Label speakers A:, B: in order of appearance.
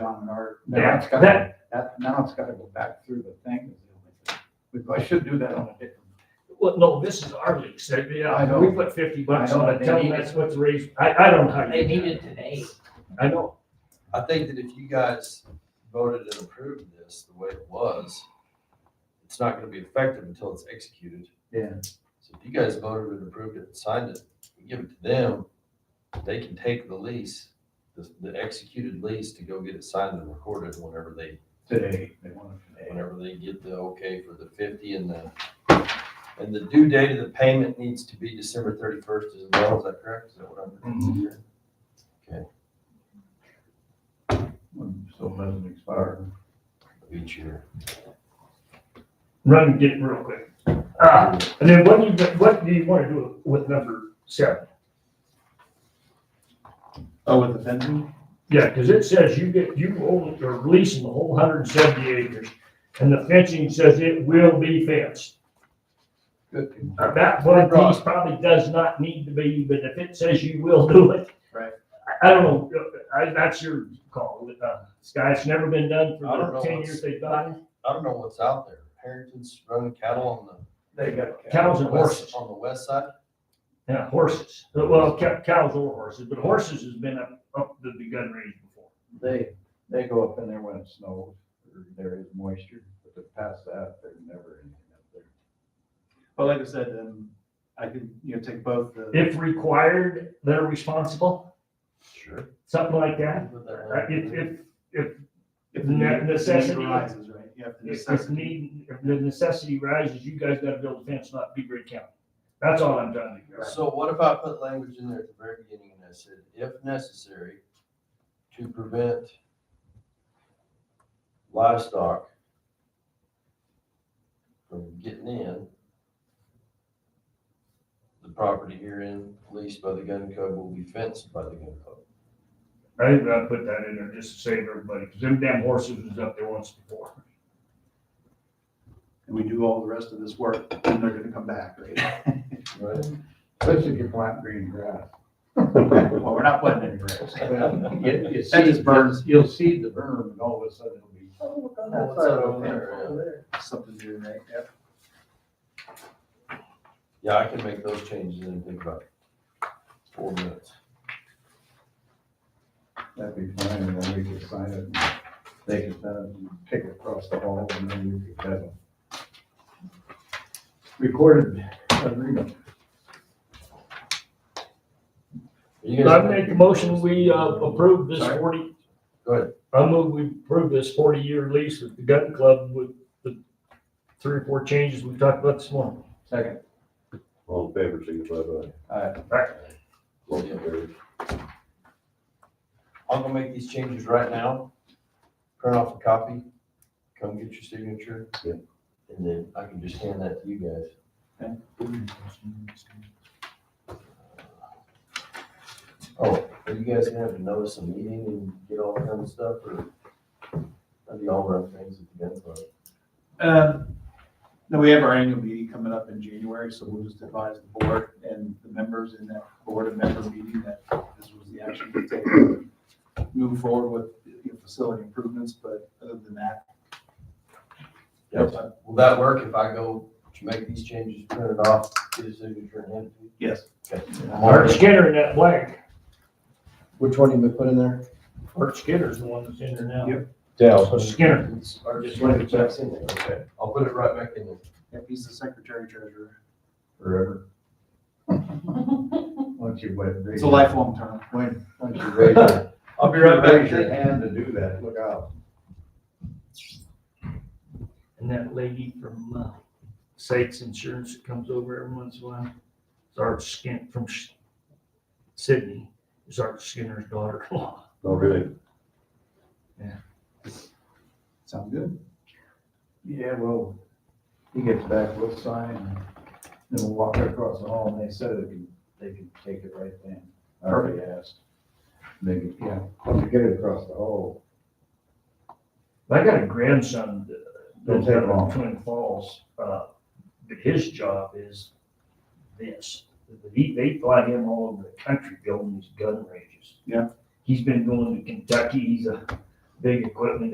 A: or now
B: Yeah,
A: it's gotta, that, now it's gotta go back through the thing. We I should do that on a different.
B: Well, no, this is our lease, That-
A: I
B: yeah,
A: know.
B: we put fifty bucks
A: I know,
B: on it,
A: they
B: tell them
A: need
B: that's what's raised, I, I don't know how
C: They
B: you
C: need
B: do
C: it
B: it.
C: today.
B: I know,
D: I think that if you guys voted and approved this the way it was, it's not gonna be effective until it's executed.
A: Yeah.
D: So if you guys voted and approved it, and signed it, you give it to them, they can take the lease, the, the executed lease to go get it signed and recorded whenever they,
A: Today, they want it today.
D: whenever they get the okay for the fifty and the, and the due date of the payment needs to be December thirty-first as well, is that correct? Is that what I'm?
A: So it doesn't expire.
D: Each year.
B: run, get it real quick. Ah, and then what do you, what do you wanna do with number seven?
A: Oh, with the fencing?
B: Yeah, cause it says you get, you own, or leasing the whole hundred and seventy acres, and the fencing says it will be fenced.
A: Good.
B: Uh, That one piece probably does not need to be, but if it says you will do it.
A: Right.
B: I, I don't know, I, that's your call, uh, Sky, it's never been done
D: I
B: for
D: don't
B: the
D: know
B: ten
D: what's-
B: years they've done.
D: I don't know what's out there. Harrington's running cattle on the
A: They got.
B: Cows and
D: West,
B: horses,
D: on the west side?
B: yeah, horses, Uh, well, ca- cows or horses, but horses has been up, up to the gun range before.
A: They, they go up in there when it snows, or there is moisture, but to pass that, there's never anything up there.
E: But like I said, um, I could, you know, take both the,
B: If required, they're responsible,
D: Sure.
B: something like that. Uh, If,
D: Well,
B: if, if,
E: if
B: ne-
E: the
B: necessity.
E: necessity arises, right? Yeah, if the
B: if- if
E: necessity.
B: need, if the necessity rises, you guys gotta build a fence, not be great county. That's all I'm trying to get.
D: So what if I put language in there at the very beginning and I said, if necessary, to prevent livestock from getting in, the property herein leased by the gun club will be fenced by the gun club.
B: I think I put that in there just to save everybody, because them damn horses was up there once before.
E: And we do all the rest of this work, and they're gonna come back, right?
D: Right?
A: Especially if you plant green grass.
E: Well, we're not planting any grass.
A: Well, You, you
E: That
A: see,
E: just burns.
A: you'll see the berm and all of a sudden it'll be. Oh, look on
D: that side of the fence over
E: Something new, right? Yep.
D: Yeah, I can make those changes in, think about four minutes.
A: That'd be fine, and then we could sign it, and they could send it, and pick it across the hall, and then we could have a recorded agreement.
D: You guys-
B: I make a motion, we uh, approve this
D: Sorry?
B: forty.
D: Go ahead.
B: I move we approve this forty-year lease with the gun club with the three or four changes we talked about this morning.
A: Second.
F: All in favor, signify by
A: Aye.
F: motion carried.
D: I'm gonna make these changes right now, print off a copy, come get your signature.
F: Yeah.
D: And then I can just hand that to you guys. Oh, are you guys gonna have to notice a meeting and get all that kind of stuff, or? How do y'all run things at the gun club?
E: Um, no, we have our annual meeting coming up in January, so we'll just advise the board and the members in that board and member meeting that this was the action to take. to Move forward with you know, facility improvements, but other than that.
D: Yes. Will that work if I go to make these changes, print it off, get a signature and hand it
E: Yes.
D: to you?
B: Art Skinner in that blank.
D: Which one you gonna put in there?
B: Art Skinner's the one that's in there now.
E: Yep.
B: So Skinner.
D: Or just one that's in there, okay. I'll put it right back in there.
E: Yep, he's the secretary treasurer.
A: Forever. Once you wait.
E: It's a lifelong term.
A: When, once you raise your.
D: I'll be right back.
A: Raise your hand to do that, look out.
B: And that lady from uh, Sakes Insurance that comes over every once in a while, it's Art Skin from Sh- Sydney, is Art Skinner's daughter-in-law.
F: Oh, really?
E: Sound good?
A: Yeah, well, he gets back, we'll sign, and then we'll walk across the hall, and they said they can, they can take it right then. I already asked. Maybe, yeah, once you get it across the hall,
B: I got a grandson that-
A: Don't
B: that's
A: take
B: down in
A: long.
B: Twin Falls, uh, but his job is this. They, they fly him all over the country building these gun ranges.
E: Yeah.
B: He's been going to Kentucky, he's a big equipment